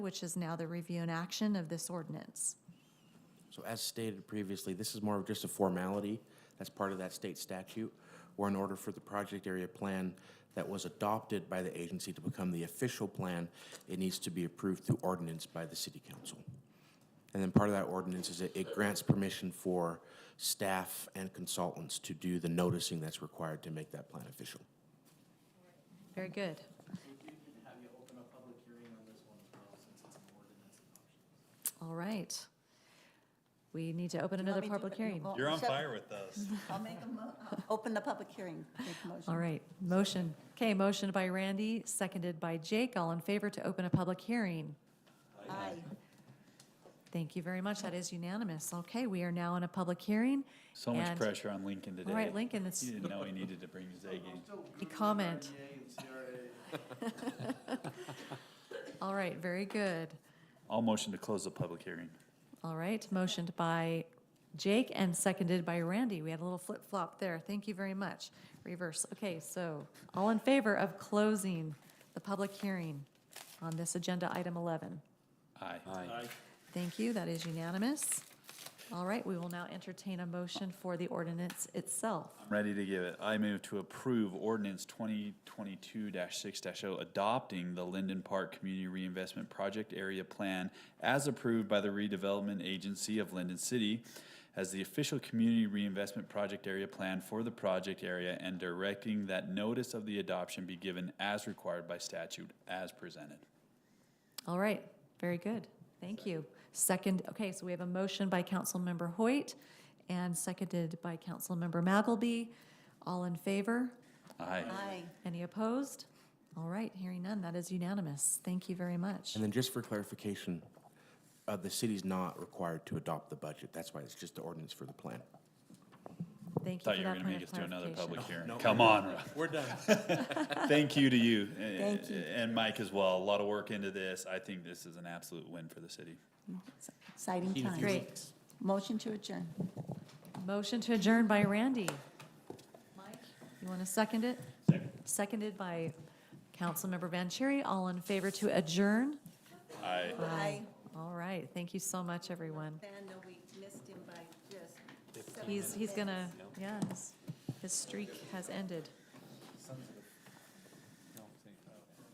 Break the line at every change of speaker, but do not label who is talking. which is now the review and action of this ordinance.
So as stated previously, this is more of just a formality. That's part of that state statute, where in order for the project area plan that was adopted by the agency to become the official plan, it needs to be approved through ordinance by the city council. And then part of that ordinance is it- it grants permission for staff and consultants to do the noticing that's required to make that plan official.
Very good.
have you open a public hearing on this one as well, since it's an ordinance adoption.
All right. We need to open another
want me to do
public
it?
hearing.
Well,
You're on
so-
fire with us.
I'll make a mo, I'll open the public hearing. Make a motion.
All right, motion. Okay, motion by Randy, seconded by Jake. All in favor to open a public hearing?
Aye.
Thank you very much. That is unanimous. Okay, we are now in a public hearing.
So much
And-
pressure on Lincoln today.
All right, Lincoln, it's
He didn't know he needed to bring his A game.
a comment. All right, very good.
I'll motion to close the public hearing.
All right, motioned by Jake and seconded by Randy. We had a little flip-flop there. Thank you very much. Reverse. Okay, so all in favor of closing the public hearing on this agenda item 11?
Aye.
Thank you, that is unanimous. All right, we will now entertain a motion for the ordinance itself.
I'm ready to give it. I move to approve ordinance twenty twenty-two six 0 adopting the Linden Park Community Reinvestment Project Area Plan as approved by the redevelopment agency of Linden City as the official community reinvestment project area plan for the project area and directing that notice of the adoption be given as required by statute as presented.
All right, very good, thank you. Second, okay, so we have a motion by Councilmember Hoyt and seconded by Councilmember Magalby. All in favor?
Aye.
Aye.
Any opposed? All right, hearing none, that is unanimous. Thank you very much.
And then just for clarification, uh, the city's not required to adopt the budget. That's why it's just the ordinance for the plan.
Thank you
Thought
for
you were
that
gonna
point
make
of
us do another
clarification.
public hearing. Come on. We're done. Thank you to you.
Thank you.
And Mike as well. A lot of work into this. I think this is an absolute win for the city.
Exciting times.
Great.
Motion to adjourn.
Motion to adjourn by Randy. Mike, you want to second it? Seconded by Councilmember Vanchery. All in favor to adjourn?
I,
Aye.
All right, thank you so much, everyone.
Vanda, we missed him by just.
He's, he's gonna, yeah, his- his streak has ended.